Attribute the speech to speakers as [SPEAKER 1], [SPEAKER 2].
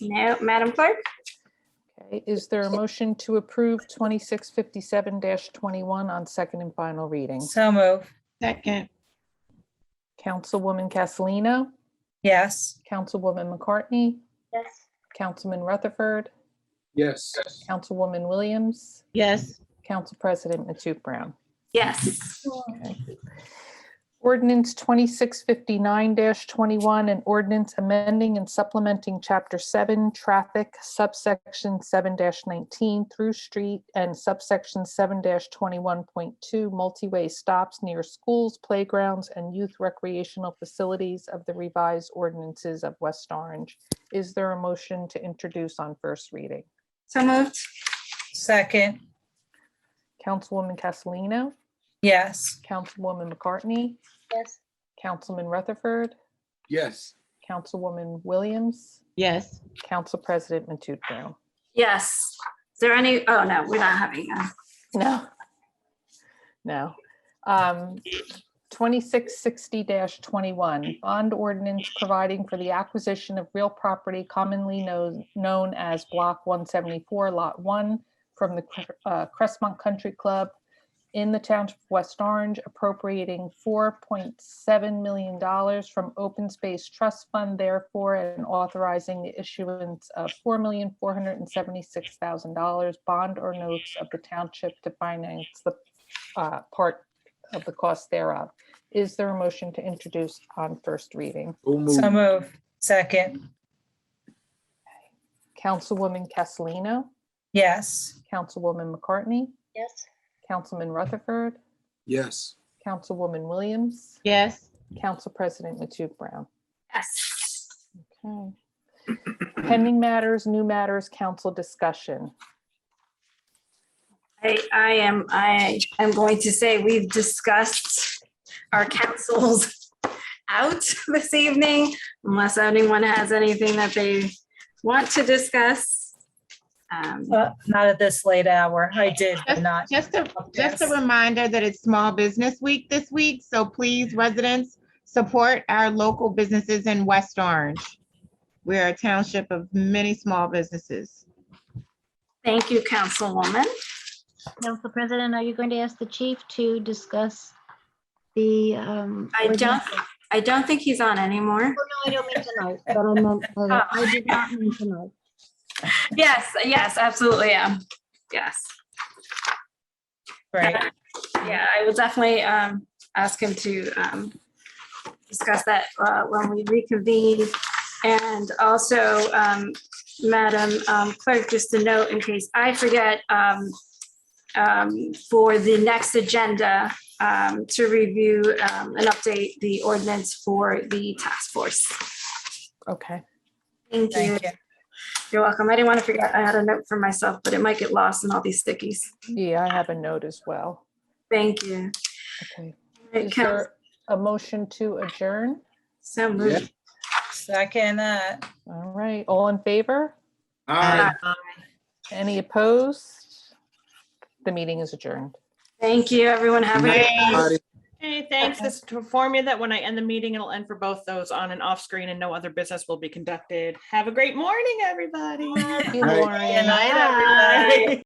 [SPEAKER 1] No, Madam Clerk?
[SPEAKER 2] Okay, is there a motion to approve 2657-21 on second and final reading?
[SPEAKER 3] So move.
[SPEAKER 4] Second,
[SPEAKER 2] Councilwoman Castellino,
[SPEAKER 3] Yes.
[SPEAKER 2] Councilwoman McCartney,
[SPEAKER 1] Yes.
[SPEAKER 2] Councilman Rutherford,
[SPEAKER 5] yes,
[SPEAKER 2] Councilwoman Williams,
[SPEAKER 4] yes,
[SPEAKER 2] Council President Matute Brown.
[SPEAKER 1] Yes.
[SPEAKER 2] Ordinance 2659-21, an ordinance amending and supplementing Chapter 7 Traffic subsection 7-19 through street and subsection 7-21.2 multi-way stops near schools, playgrounds, and youth recreational facilities of the revised ordinances of West Orange. Is there a motion to introduce on first reading?
[SPEAKER 1] So moved?
[SPEAKER 3] Second.
[SPEAKER 2] Councilwoman Castellino,
[SPEAKER 3] Yes.
[SPEAKER 2] Councilwoman McCartney,
[SPEAKER 1] Yes.
[SPEAKER 2] Councilman Rutherford,
[SPEAKER 5] yes,
[SPEAKER 2] Councilwoman Williams,
[SPEAKER 4] yes,
[SPEAKER 2] Council President Matute Brown.
[SPEAKER 1] Yes. Is there any, oh, no, we're not having, a-
[SPEAKER 2] No. No. Um, 2660-21, bond ordinance providing for the acquisition of real property commonly known, known as Block 174, Lot 1, from the Cre- uh, Crestmont Country Club in the Township of West Orange, appropriating $4.7 million from Open Space Trust Fund therefore, and authorizing the issuance of $4,476,000 bond or notes of the township to finance the uh, part of the cost thereof. Is there a motion to introduce on first reading?
[SPEAKER 5] so move,
[SPEAKER 3] So move. Second.
[SPEAKER 2] Councilwoman Castellino,
[SPEAKER 3] Yes.
[SPEAKER 2] Councilwoman McCartney?
[SPEAKER 1] Yes.
[SPEAKER 2] Councilman Rutherford,
[SPEAKER 5] yes,
[SPEAKER 2] Councilwoman Williams,
[SPEAKER 4] yes,
[SPEAKER 2] Council President Matute Brown.
[SPEAKER 1] yes.
[SPEAKER 2] Okay. Pending matters, new matters, council discussion.
[SPEAKER 1] I, I am, I am going to say we've discussed our councils out this evening, unless anyone has anything that they want to discuss. Um,
[SPEAKER 3] Uh, Not at this late hour. I did, but
[SPEAKER 4] Just-
[SPEAKER 3] not.
[SPEAKER 4] just a, just a
[SPEAKER 3] Yes.
[SPEAKER 4] reminder that it's Small Business Week this week, so please, residents, support our local businesses in West Orange. We're a township of many small businesses.
[SPEAKER 1] Thank you, Councilwoman.
[SPEAKER 6] Council President, are you going to ask the chief to discuss the? um,
[SPEAKER 1] I don't-
[SPEAKER 6] ordinance? Oh,
[SPEAKER 1] I don't think he's on anymore.
[SPEAKER 6] No, I don't mean tonight, but I meant, uh, I did not mean tonight.
[SPEAKER 1] Yes, yes, absolutely, yeah, yes.
[SPEAKER 3] Right.
[SPEAKER 1] Yeah, I will definitely um, ask him to um, discuss that uh, when we reconvene. And also, um, Madam um, Clerk, just a note in case I forget, um, um, for the next agenda, um, to review um, and update the ordinance for the task force.
[SPEAKER 2] Okay.
[SPEAKER 1] Thank you.
[SPEAKER 3] Thank you.
[SPEAKER 1] You're welcome. I didn't want to forget, I had a note for myself, but it might get lost in all these stickies.
[SPEAKER 2] Yeah, I have a note as well.
[SPEAKER 1] Thank you.
[SPEAKER 2] Okay.
[SPEAKER 1] It
[SPEAKER 2] Is there a motion to adjourn?
[SPEAKER 1] So
[SPEAKER 5] yeah.
[SPEAKER 1] moved.
[SPEAKER 3] Second. uh,
[SPEAKER 2] All right, all in favor?
[SPEAKER 5] Aye.
[SPEAKER 2] Any opposed? The meeting is adjourned.
[SPEAKER 1] Thank you, everyone. Have a good.
[SPEAKER 5] Everybody.
[SPEAKER 7] Okay, thanks. This is to inform you that when I end the meeting, it'll end for both those on and off screen and no other business will be conducted. Have a great morning, everybody.
[SPEAKER 2] Thank you,
[SPEAKER 5] Right.
[SPEAKER 2] Lauren.
[SPEAKER 3] Good night, everybody.